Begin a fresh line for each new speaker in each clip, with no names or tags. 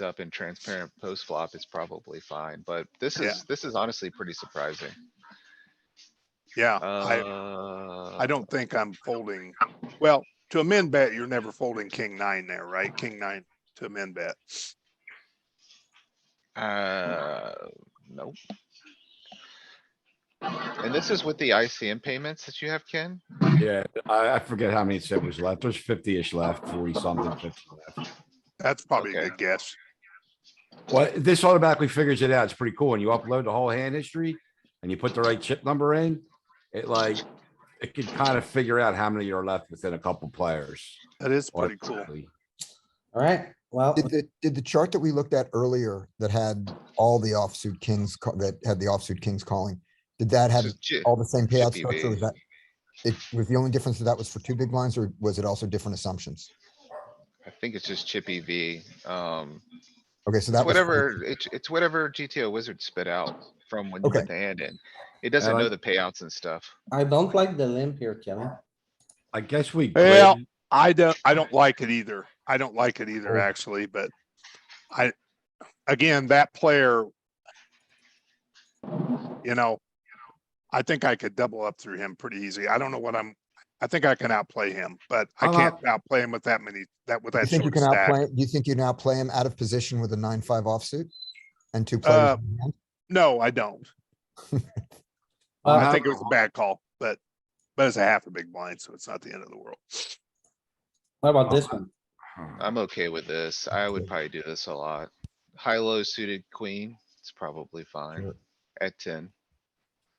locked up in transparent post flop, it's probably fine, but this
Yeah.
is, this is honestly pretty surprising.
Yeah, I, I
Uh,
don't think I'm folding. Well, to amend bet, you're never folding king nine there, right? King nine to amend bet.
uh, nope. And this is with the ICM payments that you have, Ken?
Yeah, I, I forget how many said was left. There's fifty-ish left, forty something, fifty left.
That's probably a
Okay.
good guess.
Well, this automatically figures it out. It's pretty cool. And you upload the whole hand history and you put the right chip number in. It like, it can kind of figure out how many are left within a couple players.
That is pretty cool.
automatically.
Alright, well,
Did the, did the chart that we looked at earlier that had all the offsuit kings, ca- that had the offsuit kings calling, did that have
This is J-
all the same payout
Should be
structure? Was
big.
that, it was the only difference that that was for two big blinds or was it also different assumptions?
I think it's just chippy V. Um,
Okay, so that
it's
was.
whatever, it's, it's whatever GTO wizard spit out from when you
Okay.
put the hand in. It doesn't
like-
know the payouts and stuff.
I don't like the limp here, Kevin.
I guess we.
Well,
grid-
I don't, I don't like it either. I don't like it either,
Oh.
actually, but I, again, that player, you know, I think I could double up through him pretty easy. I don't know what I'm, I think I can outplay him, but I
I'm
can't outplay him with that many, that, with
Uh-huh. You
that
think you
short
can
stack.
outplay, do you think you can outplay him out of position with a nine, five offsuit? And two players?
Uh,
in hand?
No, I don't.
I'm
I
out-
think it was a bad call, but, but it's a half a big blind, so it's not the end of the world.
What about this one?
I'm okay with this. I would probably do this a lot. High-low suited queen, it's probably fine
Sure.
at ten.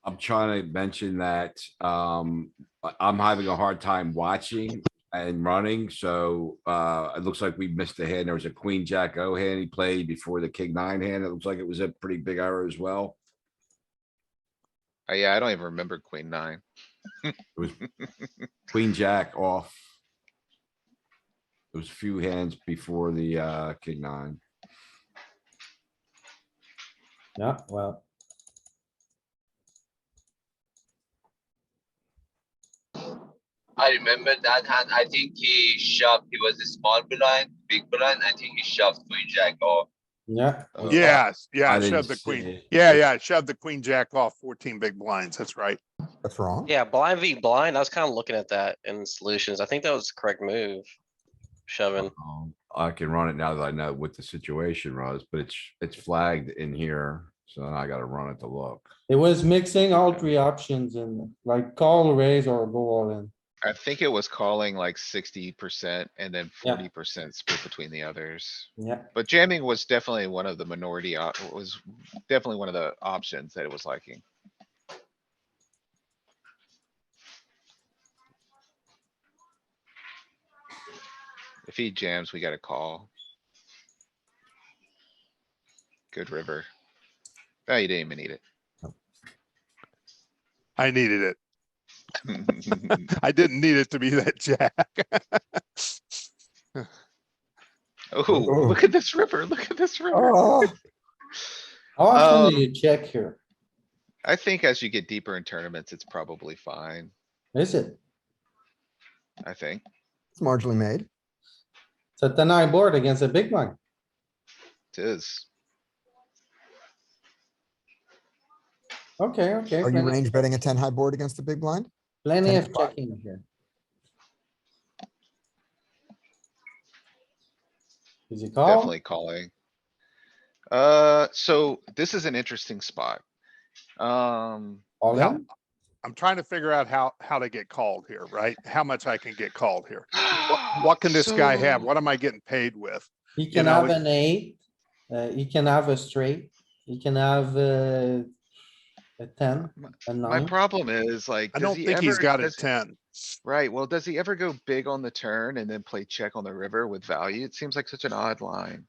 I'm trying to mention that, um, I- I'm having a hard time watching and running, so, uh, it looks like we missed a hand. There was a queen, jack, O hand he played before the king nine hand. It looks like it was a pretty big error as well.
Uh, yeah, I don't even remember queen nine.
Queen, jack off. It was a few hands before the, uh, king nine.
Yeah, well,
I remember that hand. I think he shoved. He was a small blind, big blind. I think he shoved queen jack off.
yeah,
Uh,
Yes,
Uh-huh. I
yeah,
didn't
shove the
see
queen.
it.
Yeah, yeah, shove the queen jack off fourteen big blinds. That's right.
That's wrong.
Yeah, blind v blind. I was kind of looking at that in solutions. I think that was the correct move. Shoving.
Um, I can run it now that I know what the situation was, but it's, it's flagged in here, so now I gotta run it to look.
it was mixing all three options and like call, raise or go all in.
I think it was calling like sixty percent and then
Yeah.
forty percent split between the others.
Yeah,
But jamming was definitely one of the minority, op- was definitely one of the options that it was liking. If he jams, we gotta call. Good river. Oh, you didn't even need
I needed it.
it.
I didn't need it to be that jack.
Oh, look at this river, look at this river.
Oh,
how often do
Um,
you check here?
I think as you get deeper in tournaments, it's probably fine,
Is it?
I think.
it's marginally made.
It's a ten eye board against a big one.
It is.
Okay, okay.
Are you
plenty-
range betting a ten high board against the big blind?
Plenty of
10?
checking here. Is he call?
Definitely calling. Uh, so this is an interesting spot. Um,
All
Yeah.
in?
I'm trying to figure out how, how to get called here, right? How much I can get called here. What, what can this guy have?
so-
What am I getting paid with?
He can
know,
have
it-
an eight, uh, he can have a straight, he can have, uh, a ten, a
My
nine.
problem is like.
I
does
don't
he
think he's
ever-
got a
does-
ten.
Right, well, does he ever go big on the turn and then play check on the river with value? It seems like such an odd line.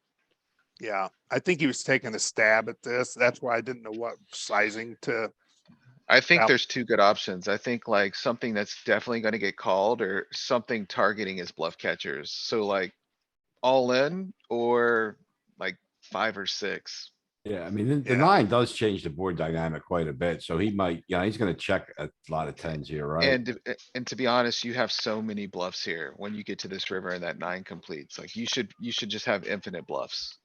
Yeah, I think he was taking a stab at this. That's why I didn't know what sizing to.
I think
Out.
there's two good options. I think like something that's definitely gonna get called or something targeting his bluff catchers. So like all in or like five or six.
Yeah, I mean, the- the
Yeah.
nine does change the board dynamic quite a bit, so he might, yeah, he's gonna check a lot of tens here, right?
And, to- a- and to be honest, you have so many bluffs here. When you get to this river and that nine completes, like you should, you should just have infinite bluffs.